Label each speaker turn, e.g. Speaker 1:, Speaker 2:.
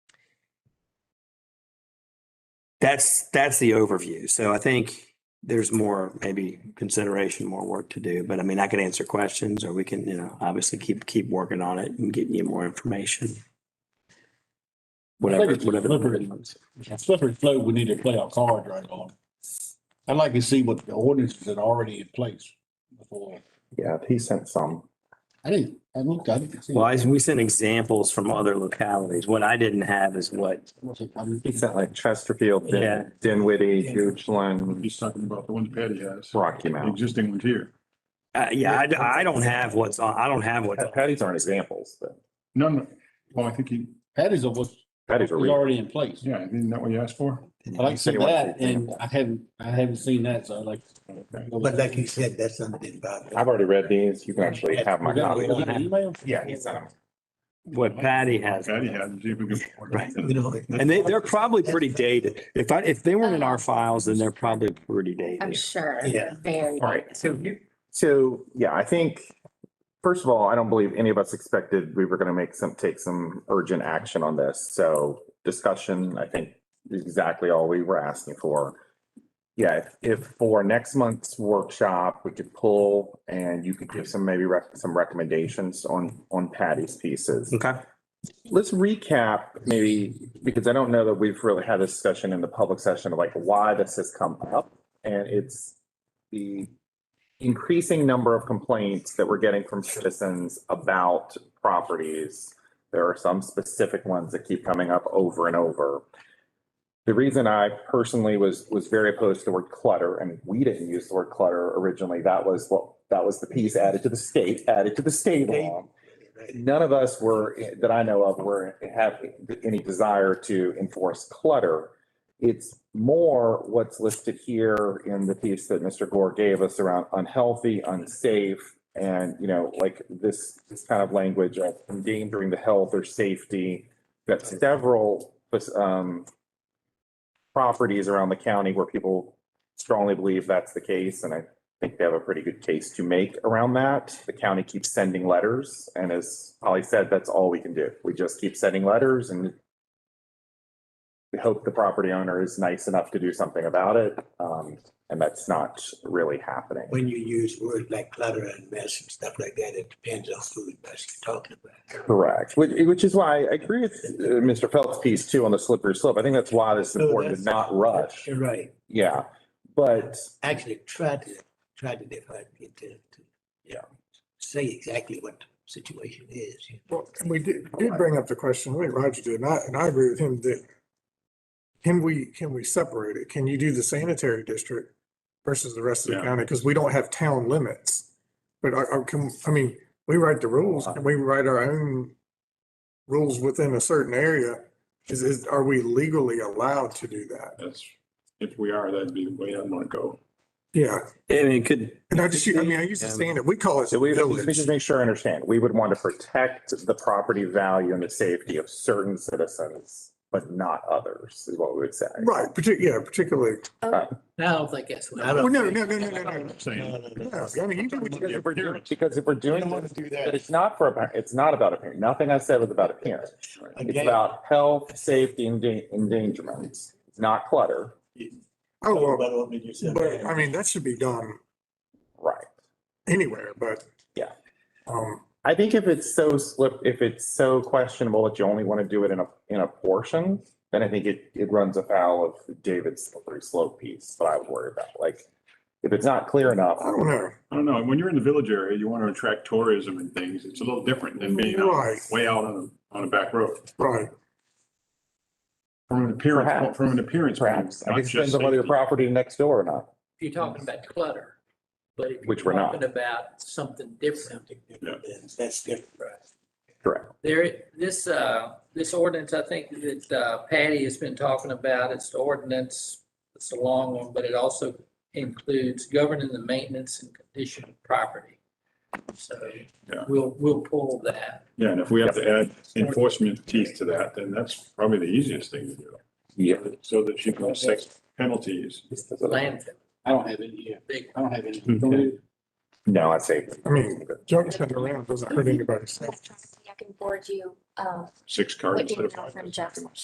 Speaker 1: that's, that's the overview. So I think there's more, maybe consideration, more work to do. But I mean, I can answer questions or we can, you know, obviously keep, keep working on it and getting you more information. Whatever,
Speaker 2: it's
Speaker 1: whatever.
Speaker 2: deliberate. slippery slope, we need to play our cards right on. I'd like to see what the ordinances that are already in place before.
Speaker 3: Yeah, he sent some.
Speaker 2: I didn't, I looked, I didn't see.
Speaker 1: Well, I- we sent examples from other localities. What I didn't have is what,
Speaker 2: What's it- I'm-
Speaker 3: He sent like Chesterfield, Din-
Speaker 1: Yeah.
Speaker 3: Dinwiddie, Hugeland,
Speaker 4: He's talking about the one that Patty has,
Speaker 3: Rocky
Speaker 4: the
Speaker 3: Mountain.
Speaker 4: existing ones here.
Speaker 1: uh, yeah, I, I don't have what's on, I don't have what's on.
Speaker 3: Patty's aren't examples, but
Speaker 4: None, of- well, I think he,
Speaker 2: Patty's of what's
Speaker 3: Patty's
Speaker 2: is
Speaker 3: are real.
Speaker 2: already in place.
Speaker 4: yeah, isn't that what you asked for?
Speaker 3: Mm-hmm.
Speaker 2: I like to see
Speaker 3: Anyone-
Speaker 2: that and I haven't, I haven't seen that, so I'd like.
Speaker 5: But like you said, that's something about.
Speaker 3: I've already read these. You can actually have my
Speaker 2: Was that-
Speaker 3: copy.
Speaker 2: was that an email?
Speaker 3: Yeah, he sent them.
Speaker 1: What Patty has.
Speaker 4: Patty had, and see if we could.
Speaker 1: Right.
Speaker 5: You know, it-
Speaker 1: And they, they're probably pretty dated. If I, if they weren't in our files, then they're probably pretty
Speaker 6: I'm
Speaker 1: dated.
Speaker 6: sure.
Speaker 5: Yeah.
Speaker 6: Very.
Speaker 3: All right, so you, so, yeah, I think, first of all, I don't believe any of us expected we were gonna make some, take some urgent action on this, so discussion, I think, is exactly all we were asking for. Yeah, if- if for next month's workshop, we could pull and you could give some, maybe rec- some recommendations on, on Patty's pieces.
Speaker 1: Okay.
Speaker 3: Let's recap maybe, because I don't know that we've really had a discussion in the public session of like why this has come up. And it's the increasing number of complaints that we're getting from citizens about properties. There are some specific ones that keep coming up over and over. The reason I personally was, was very opposed to the word clutter, and we didn't use the word clutter originally. That was what, that was the piece added to the state, added to the state law none of us were, that I know of, were, have any desire to enforce clutter. It's more what's listed here in the piece that Mr. Gore gave us around unhealthy, unsafe, and, you know, like this, this kind of language of endangering the health or safety. Got several, um, properties around the county where people strongly believe that's the case, and I think they have a pretty good case to make around that. The county keeps sending letters, and as Polly said, that's all we can do. We just keep sending letters and we hope the property owner is nice enough to do something about it, um, and that's not really happening.
Speaker 5: When you use words like clutter and mess and stuff like that, it depends on who that's talking about.
Speaker 3: Correct, which, which is why I agree with uh, Mr. Phelps' piece too on the slippery slope. I think that's why this is
Speaker 5: No,
Speaker 3: important to
Speaker 5: that's-
Speaker 3: not rush.
Speaker 5: You're right.
Speaker 3: Yeah, but
Speaker 5: Actually, try to, try to define it to, to.
Speaker 3: Yeah.
Speaker 5: Say exactly what the situation is.
Speaker 7: Well, and we did, did bring up the question, I think Roger did, and I, and I agree with him that can we, can we separate it? Can you do the sanitary district versus the rest of the
Speaker 4: Yeah.
Speaker 7: county? Because we don't have town limits. But I, I can, I mean, we write the rules, and we write our own rules within a certain area? Is, is, are we legally allowed to do that?
Speaker 4: That's, if we are, that'd be the way I'd want to go.
Speaker 7: Yeah,
Speaker 1: I mean, it could,
Speaker 7: and I just, I mean, I used to stand it, we call it
Speaker 3: So we, let me
Speaker 7: village.
Speaker 3: just make sure I understand. We would want to protect the property value and the safety of certain citizens, but not others, is what we would say.
Speaker 7: Right, partic, yeah, particularly,
Speaker 8: I don't think that's what.
Speaker 5: I
Speaker 7: well,
Speaker 5: don't
Speaker 7: no,
Speaker 5: think-
Speaker 7: no, no, no, no, no.
Speaker 5: No,
Speaker 4: Saying,
Speaker 5: no, no.
Speaker 7: Yeah, I mean, you do what
Speaker 3: Because
Speaker 7: you
Speaker 3: if we're doing- because if we're doing, this- but it's not for, appear- it's not about appearance. Nothing I said was about appearance. It's
Speaker 5: Again,
Speaker 3: about health, safety, and dan- endangerment, It's not clutter.
Speaker 7: Oh, well.
Speaker 5: nobody will make yourself
Speaker 7: But
Speaker 5: happy.
Speaker 7: I mean, that should be done
Speaker 3: Right.
Speaker 7: anywhere, but.
Speaker 3: Yeah.
Speaker 7: Um,
Speaker 3: I think if it's so slip, if it's so questionable that you only want to do it in a, in a portion, then I think it, it runs afoul of David's slippery slope piece that I would worry about. Like, if it's not clear enough,
Speaker 7: I don't know.
Speaker 4: I don't know, when you're in the village area, you want to attract tourism and things, it's a little different than being out-
Speaker 7: Right.
Speaker 4: way out on, a- on a back road.
Speaker 7: Right.
Speaker 4: From an appearance,
Speaker 3: Perhaps.
Speaker 4: from an appearance. point of view,
Speaker 3: perhaps, I
Speaker 4: not
Speaker 3: think it depends
Speaker 4: just
Speaker 3: on whether your
Speaker 4: safety.
Speaker 3: property next door or not.
Speaker 8: If you're talking about clutter, but if you're
Speaker 3: Which we're not.
Speaker 8: talking About something different.
Speaker 5: Something different, then that's different, right?
Speaker 3: Correct.
Speaker 8: There, this, uh, this ordinance, I think that uh, Patty has been talking about, it's the ordinance, it's a long one, but it also includes governing the maintenance and condition of property. So
Speaker 4: Yeah.
Speaker 8: we'll, we'll pull that.
Speaker 4: Yeah, and if we have to add enforcement teeth to that, then that's probably the easiest thing to do.
Speaker 3: Yeah.
Speaker 4: So that you can set penalties.
Speaker 8: Landfill,
Speaker 2: I don't have any here.
Speaker 8: big
Speaker 2: I don't have any.
Speaker 3: No, I'd say.
Speaker 7: I mean, jumping it around doesn't hurt anybody.
Speaker 6: I can forward you, uh,
Speaker 4: six
Speaker 6: what
Speaker 4: cards. instead
Speaker 6: email
Speaker 4: of five.
Speaker 6: from Jeff.